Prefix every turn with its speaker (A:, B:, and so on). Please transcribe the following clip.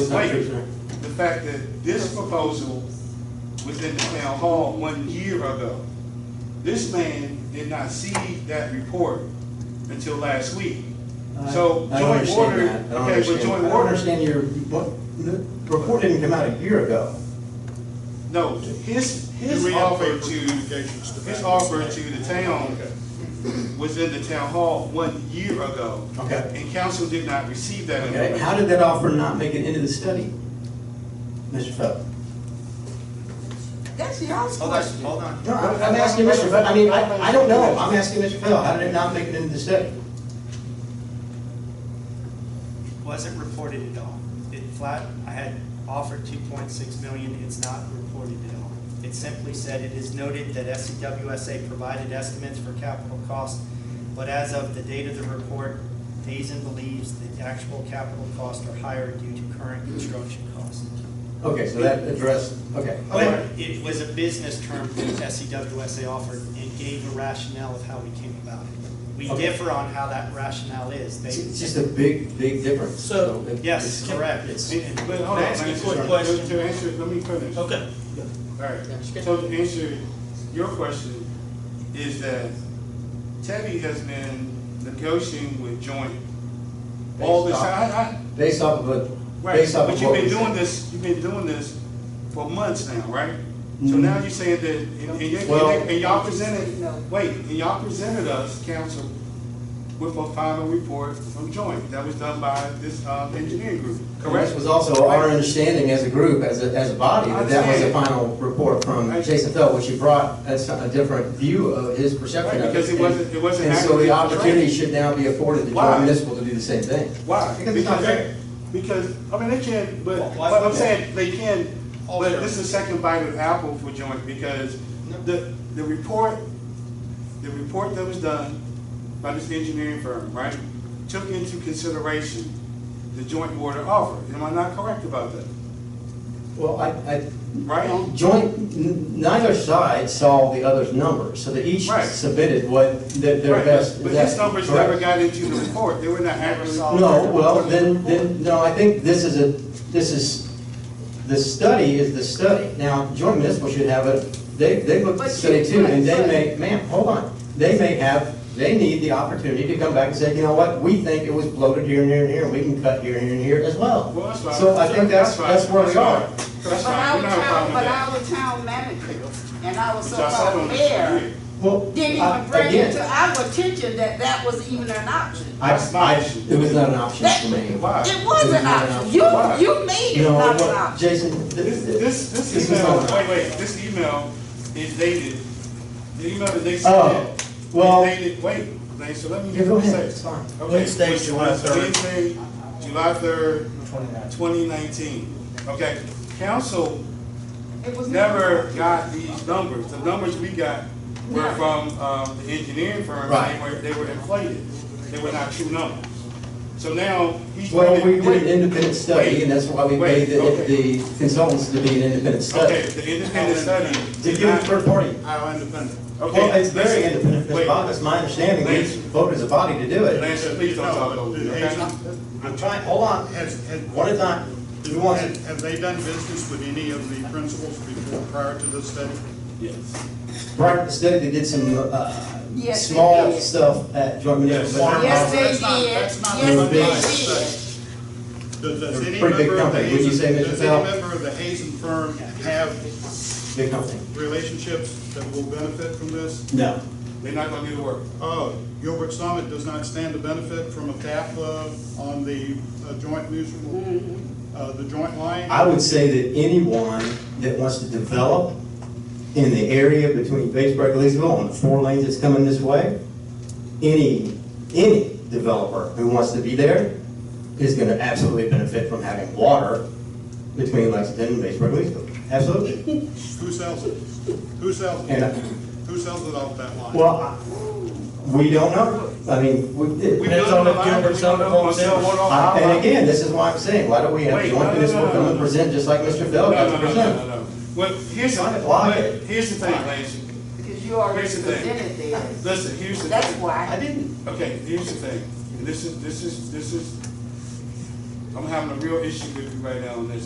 A: Wait,
B: Uh,
A: the fact that this proposal was in the town hall one year ago. This man did not see that report until last week.
B: I-
A: So
B: I don't
A: joint
B: understand
A: order,
B: that. I don't
A: okay, but
B: understand-
A: joint
B: I don't
A: order,
B: understand your, what, the report didn't come out a year ago.
A: no, his,
C: Do
A: his
C: we have
A: offer
C: paper
A: to,
C: communications to
A: his
C: back?
A: offer to the town
C: Okay.
A: was in the town hall one year ago.
B: Okay.
A: And council did not receive that.
B: Okay,
A: information.
B: how did that offer not make it into the study? Mr. Feather?
D: That's y'all's
E: Hold on,
D: question.
E: hold on.
B: No, I'm, I'm asking Mr. Feather, I mean, I, I don't know, I'm asking Mr. Feather, how did it not make it into the study?
E: Wasn't reported at all. It flat, I had offered two point six million, it's not reported at all. It simply said, it is noted that E SCWSA provided estimates for capital costs, but as of the date of the report, Hazen believes the actual capital costs are higher due to current construction costs.
B: Okay, so that addressed, okay.
E: But it was a business term that E SCWSA offered and gave a rationale of how we came about it. We
B: Okay.
E: differ on how that rationale is.
B: It's
E: They,
B: it's just a big, big difference.
F: So-
B: it-
E: yes,
B: it's-
E: correct. It's-
A: And- But hold on,
F: Can I ask you a
A: man,
F: quick
A: to-
F: question?
A: To answer, let me finish.
F: Okay.
A: Alright, so to answer your question, is that Teddy has been negotiating with joint all this time. I- I-
B: Based off of a,
A: Right,
B: based off
A: but
B: of
A: you've
B: what
A: been
B: we
A: doing
B: said.
A: this, you've been doing this for months now, right? So
B: Mhm.
A: now you're saying that, and, and you- and
B: Well-
A: they- and y'all presented, wait, and y'all presented us, council, with a final report from joint that was done by this, um, engineering group, correct?
B: This was also our understanding as a group, as a, as a body, that that was the
A: Understand.
B: final report from
A: I-
B: Jason Feld, which he brought, that's a different view of his perception
A: Right,
B: of it.
A: because it wasn't- it wasn't
B: And so
A: accurately
B: the
A: portrayed.
B: opportunity should now be afforded to
A: Why?
B: Joint Municipal to do the same thing.
A: Why?
B: Because it's not fair.
A: Because, I mean, they can, but,
E: Well, why-
A: but I'm saying, they can,
E: Oh,
A: but
E: sure.
A: this is second bite of apple for joint, because
E: No.
A: the, the report, the report that was done by this engineering firm, right, took into consideration the joint water offer. Am I not correct about that?
B: Well, I, I,
A: Right?
B: joint, n- neither side saw the other's numbers, so they each
A: Right.
B: submitted what th- their
A: Right,
B: best.
A: But
B: that-
A: these numbers
B: correct.
A: never got into the report. They were not accurately.
B: No, well, then, then, no, I think this is a, this is, the study is the study. Now, joint municipal should have a, they, they look at the
D: But
B: study
D: you-
B: too, and they
D: but-
B: may, ma'am, hold on. They may have, they need the opportunity to come back and say, you know what, we think it was bloated here and here and here, and we can cut here and here and here as well.
A: Well, that's fine.
B: So I think that's,
A: fine.
B: that's where we are.
A: That's fine. That's
D: But
A: fine.
D: our
A: We don't have a problem
D: town,
A: with
D: but
A: that.
D: our town manager and our
A: Which I said on
D: so-called
A: the
D: mayor
A: street.
B: Well,
D: didn't
B: I-
D: even bring it
B: again,
D: to our attention that that was even an option.
B: I, I, it was not an option
D: That-
B: for me.
A: Why?
D: It was an option. You,
A: Why?
D: you made it
B: No,
D: not an
B: what,
D: option.
B: Jason,
A: This, this, this
B: is not
A: email,
B: an
A: wait, wait, this email is dated, the email that they
B: Oh,
A: sent.
B: well-
A: Is dated, wait, Lane, so let me.
B: Yeah, go
A: let me
B: ahead,
A: say.
B: it's fine.
A: Okay,
F: Wednesday,
A: Wednesday,
F: July third.
A: Wednesday, July third, twenty nineteen. Okay, council
D: It was
A: never got these numbers. The numbers we got were from, um, the engineering firm.
B: Right.
A: They were, they were inflated. They were not true numbers. So now he's.
B: Well, we
A: bringing-
B: did an independent study, and that's why we paid the,
A: Wait, okay.
B: the consultants to be an independent
A: Okay,
B: study.
A: the independent study.
B: To
A: did
B: give it
A: not-
B: third party.
C: How independent?
A: Okay.
B: Well, it's very
A: listen,
B: independent, Mr.
A: wait,
B: Bob, it's my understanding, we
A: Lance.
B: voted as a body to do it.
A: Lance, please don't talk over me, okay?
B: I'm trying, hold on,
C: Has, has.
B: one at a time, who wants
C: Have
B: it?
C: have they done business with any of the principals before, prior to this study?
A: Yes.
B: Prior to the study, they did some, uh,
D: Yes, they
B: small
D: did.
B: stuff at Joint Municipal. but-
D: Yes, they
C: That's not-
D: did.
C: that's not
D: Yes,
C: what
B: they
C: I'm
B: did.
C: saying. Does, does
B: They're a pretty big
C: any member of the
B: company, wouldn't you say,
C: Hazen,
B: Mr.
C: does
B: Powell?
C: any member of the Hazen firm have
B: Big company.
C: relationships that will benefit from this?
B: No.
A: They're not gonna do the work.
C: Oh, Gilbert Summit does not stand to benefit from a TAFA on the uh, joint mutual, uh, the joint line?
B: I would say that anyone that wants to develop in the area between Batesburg and Leesville, on the four lanes that's coming this way, any, any developer who wants to be there is gonna absolutely benefit from having water between Lexington and Batesburg and Leesville. Absolutely.
C: Who sells it? Who sells it?
B: And, uh,
C: Who sells it off that line?
B: well, I- we don't know. I mean, we,
A: We
B: it-
F: That's
A: built
F: all
A: the
F: that
A: line,
F: Gilbert
A: we don't
F: Summit
A: know
F: wants
A: what's
F: in.
A: going on.
B: I- and again, this is why I'm saying, why don't we have
A: Wait, no,
B: joint
A: no,
B: municipal
A: no, no,
B: government
A: no.
B: present just like Mr.
A: No,
B: Feld
A: no,
B: has
A: no, no, no,
B: presented?
A: no. Well, here's,
B: Trying to block
A: but
B: it.
A: here's the thing, Lance.
D: Because you already
A: Here's the thing.
D: presented this.
A: Listen, here's the
D: That's
A: thing.
D: why.
B: didn't.
A: Okay, here's the thing. And this is, this is, this is, I'm having a real issue with you right now on this.